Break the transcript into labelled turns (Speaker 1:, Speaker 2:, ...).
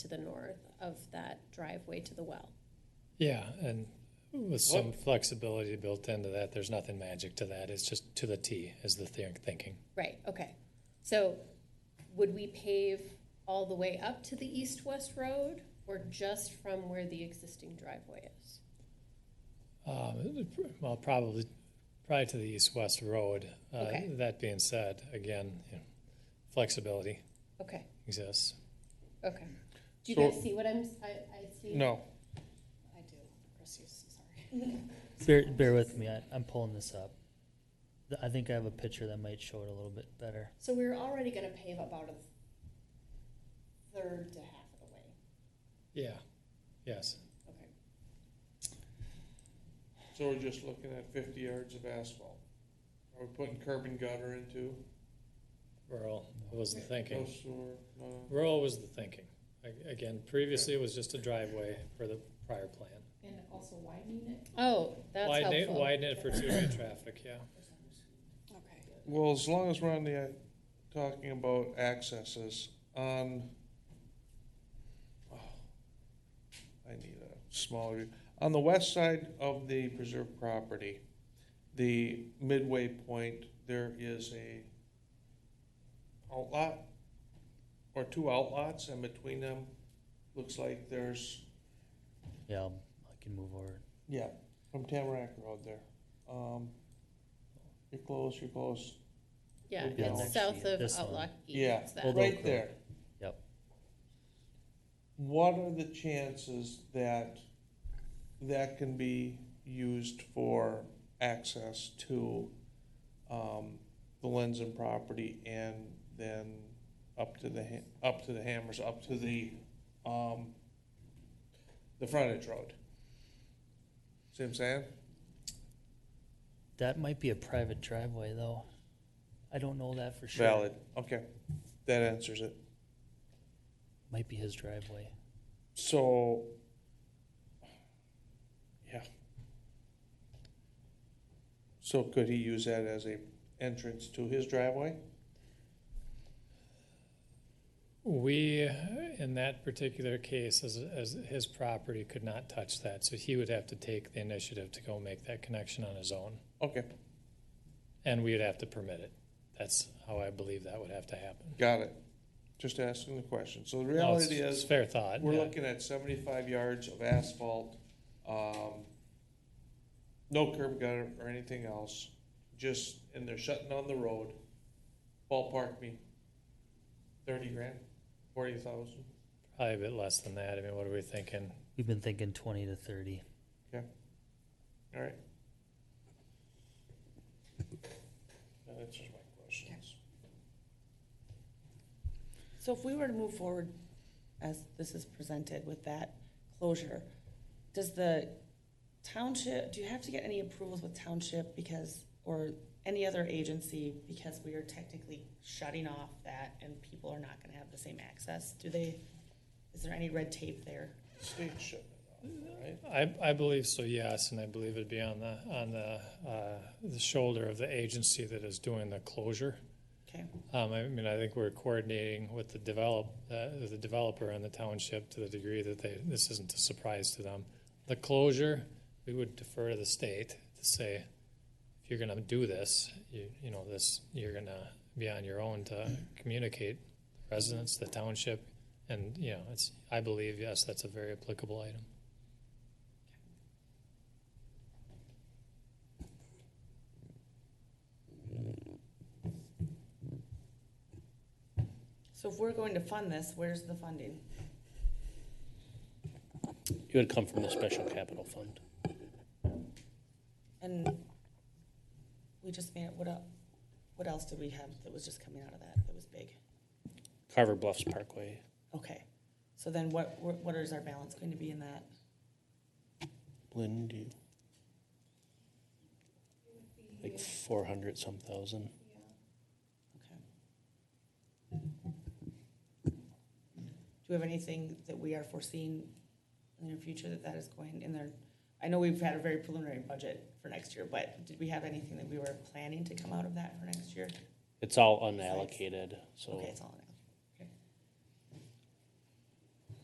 Speaker 1: to the north of that driveway to the well.
Speaker 2: Yeah, and with some flexibility built into that, there's nothing magic to that. It's just to the T is the thi- thinking.
Speaker 1: Right, okay. So would we pave all the way up to the east-west road or just from where the existing driveway is?
Speaker 2: Um, well, probably, probably to the east-west road. Uh,
Speaker 1: Okay.
Speaker 2: That being said, again, you know, flexibility
Speaker 1: Okay,
Speaker 2: exists.
Speaker 1: okay. Do you
Speaker 3: So-
Speaker 1: guys see what I'm, I, I see?
Speaker 3: No.
Speaker 1: I do. Chrissy's, sorry.
Speaker 4: Bear, bear with me. I, I'm pulling this up. Th- I think I have a picture that might show it a little bit better.
Speaker 5: So we're already gonna pave about a third to half of the way.
Speaker 2: Yeah, yes.
Speaker 5: Okay.
Speaker 3: So we're just looking at fifty yards of asphalt. Are we putting curb and gutter into?
Speaker 2: Rural was the
Speaker 3: No
Speaker 2: thinking.
Speaker 3: sewer, no.
Speaker 2: Rural was the thinking. A- Again, previously it was just a driveway for the prior plan.
Speaker 5: And also widening it?
Speaker 1: Oh, that's
Speaker 2: Widen it,
Speaker 1: helpful.
Speaker 2: widen it for two-way traffic, yeah.
Speaker 5: Okay.
Speaker 3: Well, as long as we're on the, uh, talking about accesses on, oh, I need a smaller, on the west side of the preserve property, the midway point, there is a outlot or two outlots and between them, looks like there's
Speaker 4: Yeah, I'll, I can move over.
Speaker 3: Yeah, from Tamarack Road there. Um, you're close, you're close.
Speaker 1: Yeah,
Speaker 3: Yeah.
Speaker 1: it's south of
Speaker 4: This one.
Speaker 1: Outlock East.
Speaker 3: Yeah,
Speaker 1: It's that-
Speaker 4: Although
Speaker 3: right
Speaker 4: correct.
Speaker 3: there.
Speaker 4: Yep.
Speaker 3: What are the chances that that can be used for access to, um, the Lenzen property and then up to the, Ha- up to the Hammers, up to the, um, the frontage road? See what I'm saying?
Speaker 4: That might be a private driveway, though. I don't know that for sure.
Speaker 3: Valid, okay, that answers it.
Speaker 4: Might be his driveway.
Speaker 3: So, yeah. So could he use that as a entrance to his driveway?
Speaker 2: We, in that particular case, as, as his property could not touch that, so he would have to take the initiative to go make that connection on his own,
Speaker 3: Okay,
Speaker 2: and we would have to permit it. That's how I believe that would have to happen.
Speaker 3: got it. Just asking the question. So the
Speaker 2: No, it's-
Speaker 3: reality
Speaker 2: it's
Speaker 3: is,
Speaker 2: Fair thought,
Speaker 3: we're
Speaker 2: yeah.
Speaker 3: looking at seventy-five yards of asphalt, um, no curb gutter or anything else, just, and they're shutting down the road. Ballpark me, thirty grand, forty thousand?
Speaker 2: Probably a bit less than that. I mean, what are we thinking?
Speaker 4: We've been thinking 20 to 30.
Speaker 3: All right. That answers my questions.
Speaker 5: So if we were to move forward as this is presented with that closure, does the township, do you have to get any approvals with township because, or any other agency because we are technically shutting off that and people are not gonna have the same access? Do they, is there any red tape there?
Speaker 3: State shipment, right?
Speaker 2: I, I believe so, yes, and I believe it'd be on the, on the, uh, the shoulder of the agency that is doing the closure.
Speaker 5: Okay,
Speaker 2: Um, I mean, I think we're coordinating with the develop, uh, the developer and the township to the degree that they, this isn't a surprise to them. The closure, we would defer to the state to say, if you're gonna do this, you, you know, this, you're gonna be on your own to communicate residents, the township, and, you know, it's, I believe, yes, that's a very applicable item.
Speaker 5: so if we're going to fund this, where's the funding?
Speaker 6: It would come from the special capital fund.
Speaker 5: And we just made, it. what else, what else did we have that was just coming out of that, that was big?
Speaker 6: Carver Bluffs Parkway.
Speaker 5: Okay, so then what, what is our balance going to be in that?
Speaker 6: Lynn, do you? Like four hundred some thousand.
Speaker 5: Okay. Do we have anything that we are foreseeing in the near future that that is going in there? I know we've had a very preliminary budget for next year, but did we have anything that we were planning to come out of that for next year?
Speaker 6: It's all unallocated, so
Speaker 5: Okay, it's all in